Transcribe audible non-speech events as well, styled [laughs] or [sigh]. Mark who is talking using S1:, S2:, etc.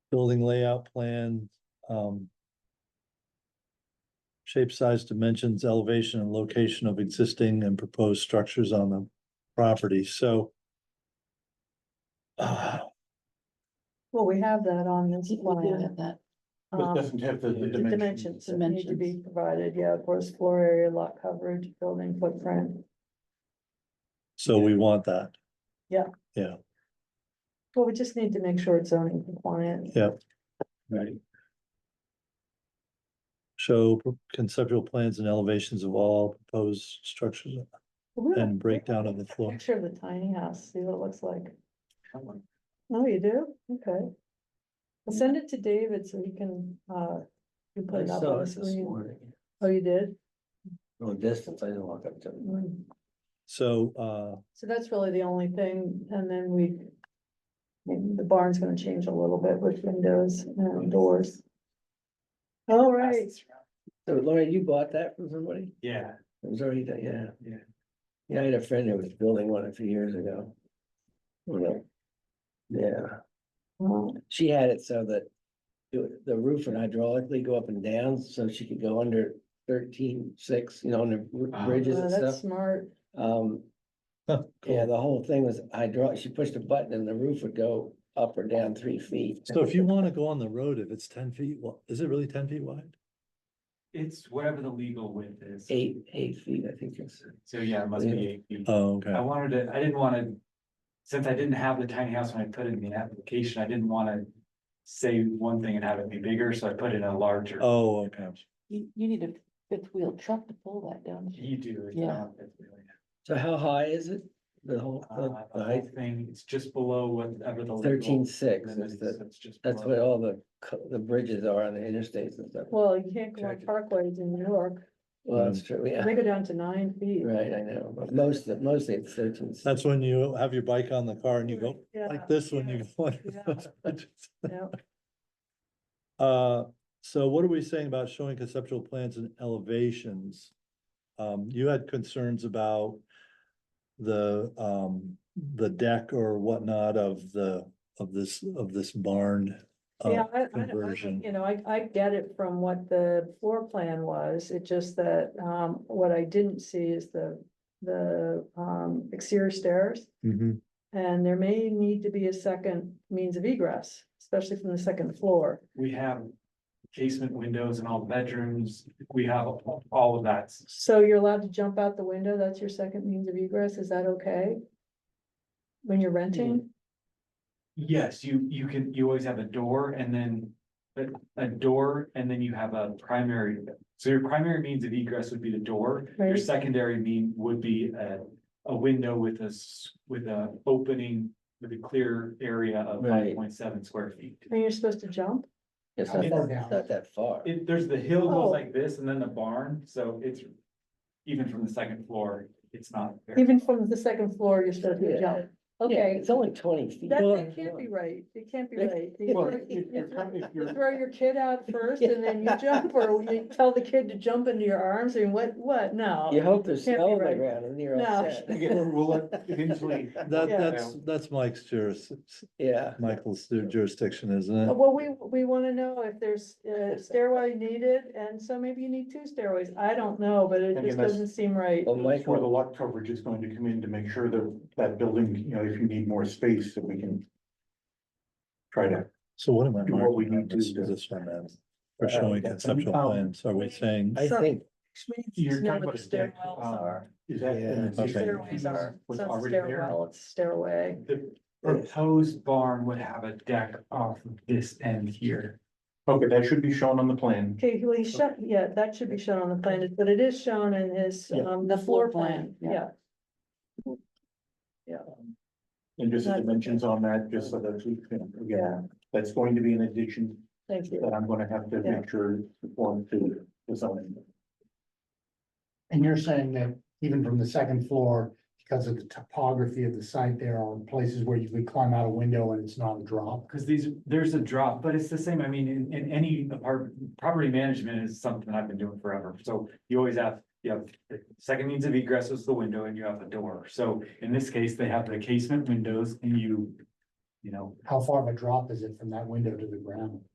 S1: building layout plan, um. Shape, size, dimensions, elevation and location of existing and proposed structures on the property, so. [sighs] Uh,
S2: Well, we have that on this
S3: Yeah,
S2: plan.
S3: that,
S4: But
S2: um,
S4: it doesn't have the the
S1: the
S2: The dimensions
S4: dimensions.
S2: that need to be
S3: Dimensions.
S2: provided, yeah, of course, floor area, lot coverage, building footprint.
S1: so we want that.
S2: Well, we just need to make sure it's zoning compliant.
S1: Yeah.
S4: Right.
S1: Show conceptual plans and elevations of all proposed structures
S2: We have
S1: and breakdown of the
S2: a
S1: floor.
S2: Picture of the tiny house, see what it looks like. Oh, you do? Okay. I'll send it to David so he can, uh, you put
S5: I
S2: it up
S5: saw
S2: on the
S5: it this
S2: screen.
S5: morning.
S2: Oh, you did?
S5: Long distance, I didn't walk up to it.
S2: Mm.
S1: So, uh,
S2: So that's really the only thing, and then we. maybe The barn's gonna change a little bit with windows and doors. All right,
S5: So Laura, you bought that from somebody?
S4: Yeah,
S5: It was already, done, yeah.
S4: yeah.
S5: Yeah, I had a friend who was building one a few years ago. You know, Yeah,
S2: well,
S5: she had it so that it- the roof would hydraulically go up and down so she could go under thirteen six, you know, under r-
S4: Ah.
S5: bridges
S2: uh,
S5: and
S2: that's
S5: stuff.
S2: smart.
S5: Um,
S1: huh,
S5: yeah,
S1: cool.
S5: the whole thing was hydraulic. She pushed a button and the roof would go up or down three feet.
S1: so if you want to go on the road, if it's ten feet, wa- is it really ten feet wide?
S4: It's whatever the legal width is.
S5: Eight, eight feet, I think it's.
S4: So yeah, it must
S5: Yeah.
S4: be eight feet.
S1: Oh,
S4: I
S1: okay,
S4: wanted to, I didn't wanna, since I didn't have the tiny house when I put it in the application, I didn't wanna. Say one thing and have it be bigger, so I put in a larger.
S1: oh, okay,
S3: you, you need a fifth wheel truck to pull that down.
S4: You do. it's
S3: Yeah.
S4: not- it's really-
S5: So how high is it? The whole,
S4: uh,
S5: the- the
S4: The
S5: height?
S4: whole thing, it's just below whatever the. legal
S5: Thirteen six
S4: limit
S5: is
S4: is,
S5: the,
S4: so it's just
S5: that's
S4: below.
S5: what all the, co- the bridges are on the interstates and stuff.
S2: Well, you can't go on
S5: Check it.
S2: parkways in New York.
S5: Well, that's true, yeah,
S2: They go down to nine feet.
S5: right, I know, but most, of- mostly it's thirteen.
S1: that's when you have your bike on the car and you go
S2: Yeah,
S1: like this when you.
S2: yeah,
S1: go on
S2: yeah.
S1: those bridges. [laughs]
S2: yeah.
S1: Uh, so what are we saying about showing conceptual plans and elevations? Um, you had concerns about the, um, the deck or whatnot of the, of this, of this barn. uh,
S2: Yeah, I, I- I,
S1: conversion.
S2: you know, I, I get it from what the floor plan was, it just that, um, what I didn't see is the, the, um, exterior stairs.
S1: Mhm.
S2: And there may need to be a second means of egress, especially from the second floor.
S4: We have casement windows in all the bedrooms, we have all of that.
S2: So you're allowed to jump out the window, that's your second means of egress, is that okay? When you're renting?
S4: Yes, you, you can, you always have a door and then a, a door and then you have a primary. So your primary means of egress would be the door, your
S2: Right.
S4: secondary mean would be a, a window with a, s- with a opening. With a clear area of
S5: Right.
S4: five point seven square feet.
S2: And you're supposed to jump?
S5: It's not,
S4: It's-
S5: that- it's not that far.
S4: It, there's the hill
S2: Oh.
S4: goes like this and then the barn, so it's. Even from the second floor, it's not. very-
S2: Even from the second floor, you're supposed to
S5: Yeah.
S2: jump.
S5: Yeah,
S2: Okay,
S5: It's only twenty feet.
S2: that, that can't be right, it can't be right. You
S4: Well,
S2: throw-
S4: if- if you're com- if
S2: You
S4: you're-
S2: throw your kid out first and then you jump, or you tell the kid to jump into your arms, and what, what,
S5: You
S2: no.
S5: hope there's
S2: Can't be
S5: snow on the
S2: right.
S5: ground and you're all
S2: No.
S5: [laughs] set.
S4: We'll eventually-
S1: That,
S2: Yeah.
S1: that's, that's Mike's juris,
S5: Yeah,
S1: Michael's jurisdiction, isn't it?
S2: Uh, Well, we, we wanna know if there's a stairway needed, and so maybe you need two stairways, I don't know, but it
S6: And
S2: just
S6: unless-
S2: doesn't seem right.
S5: well,
S6: That's where the
S5: Michael,
S6: lot coverage is going to come in to make sure that that building, you know, if you need more space, that we can. Try to,
S1: So what am I
S6: Do what we
S1: marking on
S6: need to
S1: this
S6: do.
S1: position as? For showing conceptual
S6: Um,
S1: plans, are we saying?
S5: I
S2: So-
S5: think,
S2: We need to
S6: you're
S2: know
S6: talking
S2: what
S6: about
S2: the
S6: a deck.
S2: stairwells
S6: um,
S2: are.
S4: uh,
S6: Is that?
S5: Yeah.
S6: is that
S1: Okay.
S2: Stairways are, it's
S6: was
S2: not
S6: already there?
S2: stairwell, it's stairway.
S4: The proposed barn would have a deck off of this end here.
S6: Okay, that should be shown on the plan.
S2: Okay, well, he shut, yeah, that should be shown on the plan, but it is shown in his,
S6: Yeah.
S2: um,
S3: The
S2: floor
S3: floor
S2: plan,
S3: plan, yeah.
S2: yeah.
S6: And just the
S2: That's-
S6: dimensions on that, just so that we can,
S2: Yeah.
S6: again, that's going to be an addition
S2: Thank you.
S6: that I'm gonna have to
S2: Yeah.
S6: make sure conform to the zoning.
S7: And you're saying that even from the second floor, because of the topography of the site, there are places where you could climb out a window and it's not a drop?
S4: Cause these, there's a drop, but it's the same, I mean, in, in any apartment, property management is something I've been doing forever, so you always have. You have, the second means of egress is the window and you have a door, so in this case, they have the casement windows and you. you know,
S7: How far of a drop is it from that window to the ground?